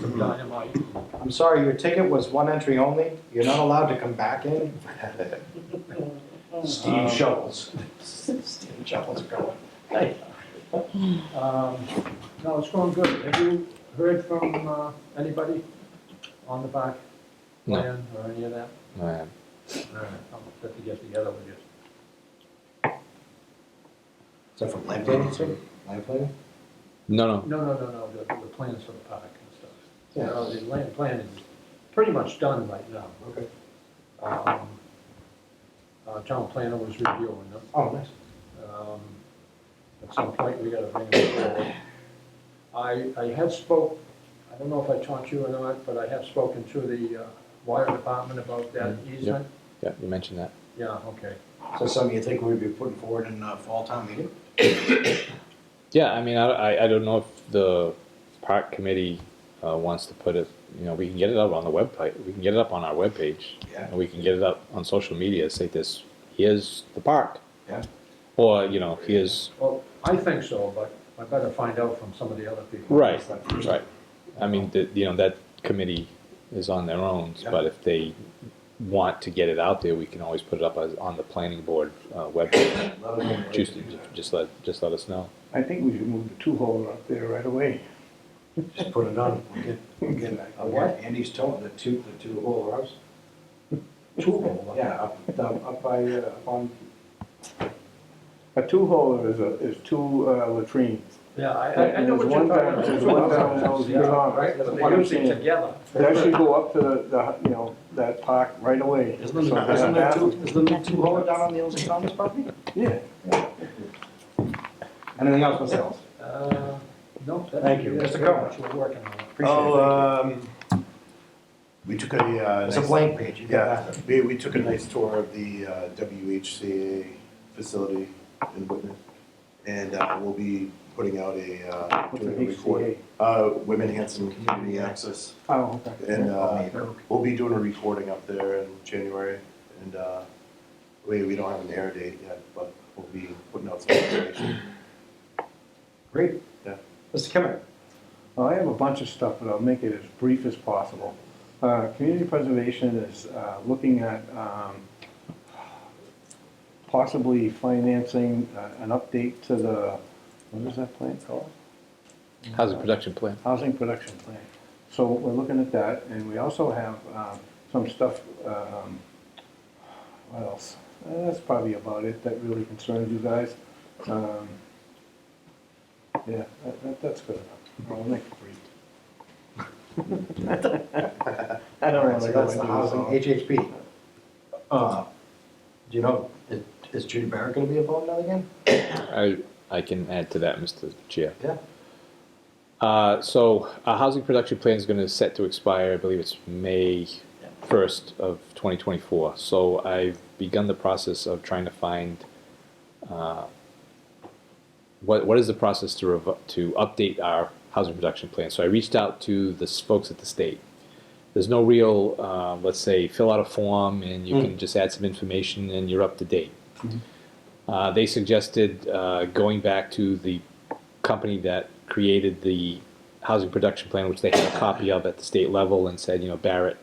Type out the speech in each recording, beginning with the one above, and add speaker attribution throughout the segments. Speaker 1: dynamite.
Speaker 2: I'm sorry, your ticket was one entry only. You're not allowed to come back in.
Speaker 1: Steve shovels.
Speaker 2: Steve Jobs going.
Speaker 1: Um, No, it's going good. Have you heard from uh, anybody on the back
Speaker 3: No.
Speaker 1: plan or any of that?
Speaker 3: Alright.
Speaker 1: All right, I'll have to get together with you.
Speaker 2: Is that from Lamplater too? Lamplater?
Speaker 3: No, no.
Speaker 1: No, no, no, no, the, the plans for the park and stuff.
Speaker 2: Yeah.
Speaker 1: Now, The land plan is pretty much done right now.
Speaker 2: Okay.
Speaker 1: Um, uh, town planner was reviewing them.
Speaker 2: Oh, nice.
Speaker 1: Um, At some point, we gotta bring it forward. I, I had spoke, I don't know if I talked to you or not, but I have spoken to the uh, wire department about that
Speaker 2: Mm-hmm.
Speaker 3: Mm, yeah.
Speaker 1: easement.
Speaker 3: Yeah, you mentioned that.
Speaker 1: Yeah, okay.
Speaker 2: So something you think we'd be putting forward in uh fall town meeting?
Speaker 3: Yeah, I mean, I, I, I don't know if the park committee uh, wants to put it, you know, we can get it up on the website. We can get it up on our webpage.
Speaker 2: Yeah.
Speaker 3: And we can get it up on social media, say this, here's the park.
Speaker 2: Yeah.
Speaker 3: Or, you know, here's,
Speaker 1: Well, I think so, but I better find out from some of the other people.
Speaker 3: right, right. I mean, the, you know, that committee is on their own,
Speaker 2: Yeah.
Speaker 3: but if they want to get it out there, we can always put it up as, on the planning board uh, webpage.
Speaker 2: Let them know.
Speaker 3: Just, just let, just let us know.
Speaker 4: I think we should move the two-hole up there right away.
Speaker 2: Just put it on. We'll get, we'll get,
Speaker 1: A what?
Speaker 2: Andy's towing the two, the two hole house.
Speaker 1: Two,
Speaker 2: Yeah, up, down- up by, uh, up on,
Speaker 4: A two-hole is a, is two uh, latrines.
Speaker 1: Yeah, I- I, I know what you're
Speaker 4: There's one
Speaker 1: talking
Speaker 4: down-
Speaker 1: about.
Speaker 4: there's one down
Speaker 1: Yeah,
Speaker 4: those big arms.
Speaker 1: Right, but
Speaker 4: What
Speaker 1: they're
Speaker 4: I'm
Speaker 1: usually
Speaker 4: saying.
Speaker 1: together.
Speaker 4: That should go up to the, you know, that park right away.
Speaker 2: isn't
Speaker 4: So
Speaker 2: there, isn't there
Speaker 4: that-
Speaker 2: two, isn't there two hole down on the Ilse Thomas property?
Speaker 4: Yeah.
Speaker 2: Anything else, Miss Ellis?
Speaker 1: Uh, No. that's-
Speaker 2: Thank you.
Speaker 1: that's
Speaker 2: Mr.
Speaker 1: pretty
Speaker 2: Cohen.
Speaker 1: much what We're working on.
Speaker 2: Appreciate it.
Speaker 5: Oh, um, we took a, uh.
Speaker 2: It's a
Speaker 5: nice-
Speaker 2: blank page, you got
Speaker 5: Yeah,
Speaker 2: that.
Speaker 5: we, we took a nice tour of the, uh, WHCA facility in Whitman. And, uh, we'll be putting out a, uh,
Speaker 4: What's
Speaker 5: doing
Speaker 4: the
Speaker 5: a record,
Speaker 4: HCA?
Speaker 5: uh, Women Hanson Community Access.
Speaker 4: Oh, okay.
Speaker 5: And, uh, we'll be doing a recording up there in January and, uh, we, we don't have an air date yet, but we'll be putting out some information.
Speaker 2: Great.
Speaker 5: Yeah.
Speaker 2: Mr. Kimmett?
Speaker 4: Well, I have a bunch of stuff, but I'll make it as brief as possible. Uh, Community preservation is uh, looking at um, possibly financing uh, an update to the, what is that plant called?
Speaker 3: How's the production plan?
Speaker 4: housing production plan. So we're looking at that, and we also have um, some stuff, um, what else? Uh, That's probably about it that really concerns you guys. Um, Yeah, that- that- that's good enough. I'll make it brief. I don't
Speaker 2: Alright,
Speaker 4: want
Speaker 2: so
Speaker 4: to go
Speaker 2: that's the
Speaker 4: into
Speaker 2: housing,
Speaker 4: housing.
Speaker 2: HHP. Uh, Do you know, is- is Judy Barrett gonna be involved now again?
Speaker 3: I, I can add to that, Mr. Chair.
Speaker 2: Yeah.
Speaker 3: Uh, so our housing production plan is going to set to expire, I believe it's May first of twenty twenty-four. So I've begun the process of trying to find, uh, what, what is the process to rev- to update our housing production plan? So I reached out to the s- folks at the state. There's no real, uh, let's say, fill out a form and you can just add some information and you're up to date. Uh, they suggested uh, going back to the company that created the housing production plan, which they had a copy of at the state level, and said, you know, Barrett.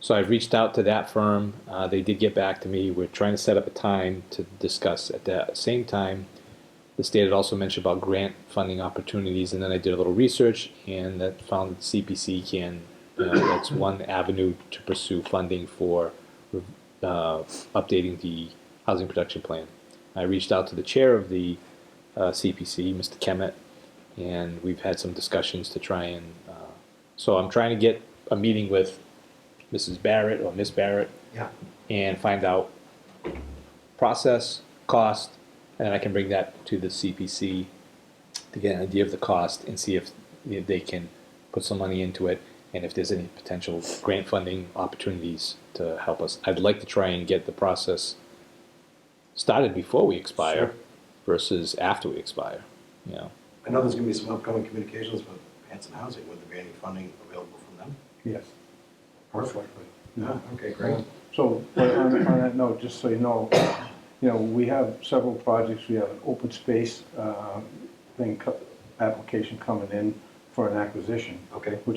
Speaker 3: So I've reached out to that firm. Uh, they did get back to me. We're trying to set up a time to discuss. At the same time, the state had also mentioned about grant funding opportunities, and then I did a little research and that found that CPC can. Uh, that's one avenue to pursue funding for uh, updating the housing production plan. I reached out to the chair of the uh, CPC, Mr. Kemet, and we've had some discussions to try and. Uh, so I'm trying to get a meeting with Mrs. Barrett or Miss Barrett
Speaker 2: Yeah.
Speaker 3: and find out process, cost, and then I can bring that to the CPC to get an idea of the cost and see if, if they can put some money into it and if there's any potential grant funding opportunities to help us. I'd like to try and get the process started before we expire versus after we expire. You know,
Speaker 2: I know there's gonna be some upcoming communications with Hanson Housing, would there be any funding available from them?
Speaker 4: Yes.
Speaker 2: Perfectly.
Speaker 4: Yeah.
Speaker 2: okay, great.
Speaker 4: So, but on, on that note, just so you know, you know, we have several projects, we have an open space, uh, thing, co- application coming in for an acquisition.
Speaker 2: Okay.
Speaker 4: Which